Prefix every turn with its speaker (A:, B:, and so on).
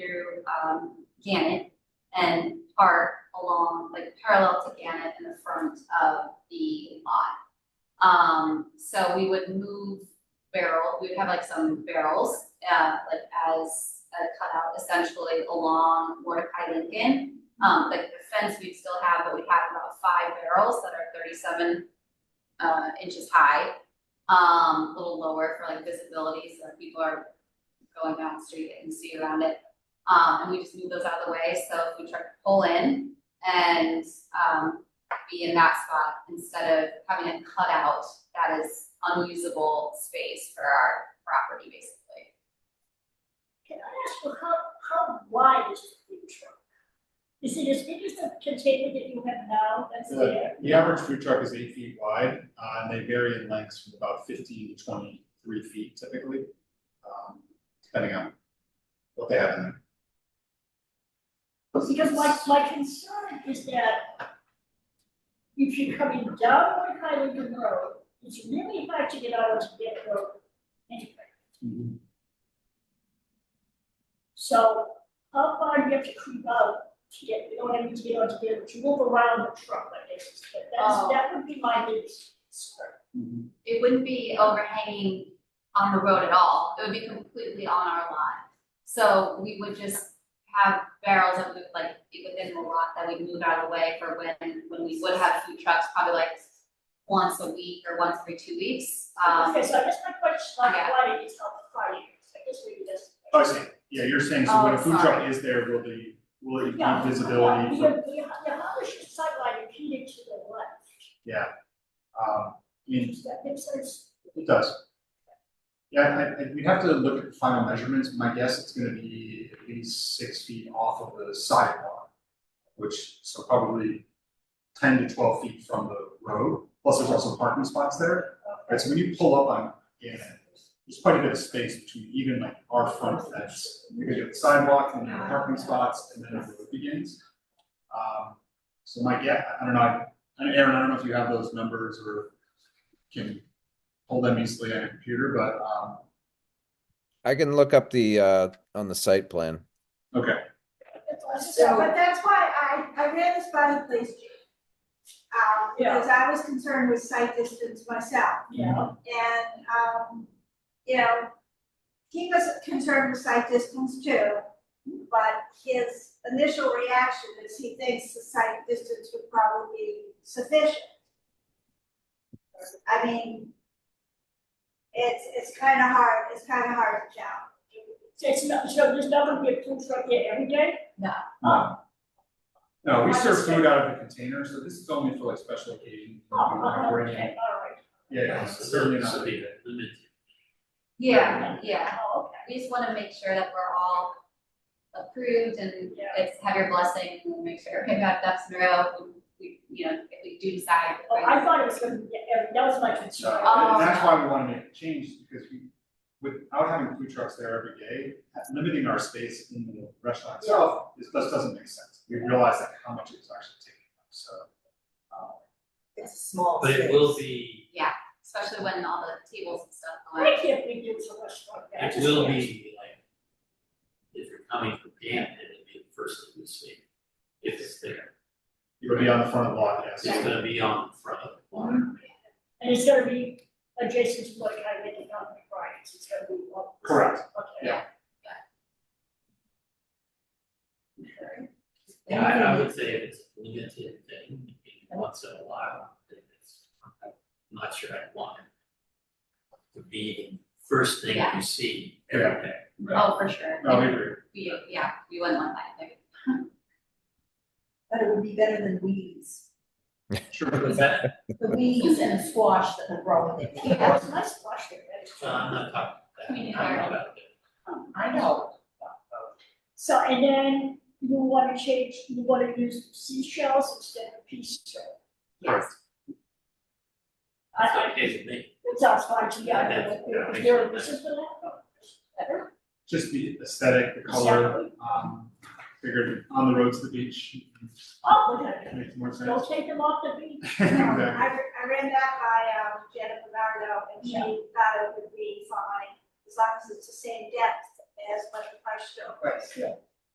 A: through, um, Gannett and park along, like parallel to Gannett in the front of the lot. Um, so we would move barrel, we'd have like some barrels, uh, like as a cutout essentially along Mordecai Lincoln. Um, like the fence we'd still have, but we have about five barrels that are thirty-seven, uh, inches high. Um, a little lower for like visibility, so that people are going down the street and see around it. Um, and we just move those out of the way, so we try to pull in and, um, be in that spot instead of having a cutout that is unusable space for our property, basically.
B: Can I ask you, how, how wide is the food truck? Is it as big as the container that you have now that's
C: The-
B: there?
C: The average food truck is eight feet wide, uh, and they vary in lengths from about fifteen to twenty-three feet typically, um, depending on what they have in there.
B: Because my, my concern is that if you're coming down One Highland Road, it's really hard to get out onto that road anyway. So how far do you have to creep out to get, you know what I mean, to get onto there, to move around the truck, I guess, is- but that's,
A: Oh.
B: that would be my biggest concern.
A: It wouldn't be overhanging on the road at all, it would be completely on our lot. So we would just have barrels that would like be within the lot that we move out of the way for when, when we would have food trucks, probably like once a week or once every two weeks, um.
B: Okay, so I guess my question, like,
A: yeah.
B: why did it stop the fire? I guess maybe that's.
C: Oh, I see, yeah, you're saying, so when a
A: Oh,
C: food truck
A: sorry.
C: is there, will the, will it be
B: Yeah,
C: visibility
B: Yeah,
C: for,
B: the, the Amish sightline repeated to the left,
C: yeah. Um, I mean,
B: does that make sense?
C: it does. Yeah, I, I, we'd have to look at the final measurements, my guess it's gonna be at least six feet off of the sidewalk, which, so probably ten to twelve feet from the road, plus there's also parking spots there. Uh, Right, so when you pull up on Gannett, there's quite a bit of space between even like our front fence, because you have the sidewalk and your parking spots, and then the road begins. Um, so Mike, yeah, I don't know, I, I don't- Aaron, I don't know if you have those numbers or can pull them easily on your computer, but, um,
D: I can look up the, uh, on the site plan.
C: okay.
E: So, but that's why I, I ran this by the police chief. Um, because I was concerned with sight distance myself,
B: Yeah,
E: and, um, you know, he was concerned with sight distance too, but his initial reaction is he thinks the sight distance would probably be sufficient. I mean, it's, it's kinda hard, it's kinda hard to tell.
B: so it's not, so there's not gonna be a food truck there every day? Uh,
C: Um, No, we serve food out of a container, so this is only for like special occasions.
B: Oh,
C: when we're
B: okay, all
C: operating.
B: right.
C: Yeah, yeah, so certainly not.
A: Yeah, yeah.
B: Oh, okay.
A: We just wanna make sure that we're all approved and
B: Yeah.
A: it's have your blessing, and make sure we have ducks in a row, we, you know, if we do decide.
B: Oh, I thought it was gonna be, every- that was my
C: So,
B: concern.
A: Oh.
C: and that's why we wanna make a change, because we, without having food trucks there every day, limiting our space in the restaurant itself, this, this doesn't make sense. We realize that how much it's actually taking up, so. uh,
F: It's a small
G: But it will be,
A: Especially when all the tables and stuff go
B: I can't believe there was a restaurant there. I
G: it
B: just
G: will
B: can't.
G: be like, if you're coming from Gannett, it'll be the first thing you see, if it's there.
C: It would be on the front of the lot,
G: It's
C: yes.
G: gonna be on the front of the barn.
B: And it's gonna be adjacent to what I read about the Bryant's, it's gonna be one.
C: Correct.
B: Okay.
C: Yeah.
G: Yeah, I, I would say if it's a limited thing, and once in a while, then it's, I'm not sure I'd want it to be the first thing
A: Yeah.
G: you see every day.
A: Oh, for sure.
C: No, we agree.
A: We, yeah, we wouldn't want that, like,
F: but it would be better than weeds.
G: But that-
F: The weeds and the squash that will grow in
B: Yeah,
F: it.
B: that's a nice flush there, that's.
G: uh, I'm not talking
A: Community
G: about that, I'm talking about the
B: Um,
F: I know.
B: So, and then you wanna change, you wanna use seashells instead of pea shell.
A: yes.
B: I,
G: It's
B: I,
G: okay with me.
B: it sounds fine to me, I
G: Yeah,
B: don't
G: yeah,
B: know,
G: I
B: is
G: think
B: there a
G: so.
B: reason for that? Better?
C: Just the aesthetic, the color, um, figured on the road to the beach,
B: Oh, look at it.
C: makes more sense.
B: don't take them off the beach.
C: Exactly.
E: I, I ran that by, um, Jennifer Nardo, and she thought it would be fine, as long as it's the same depth as what the price show.
F: Right,
B: yeah.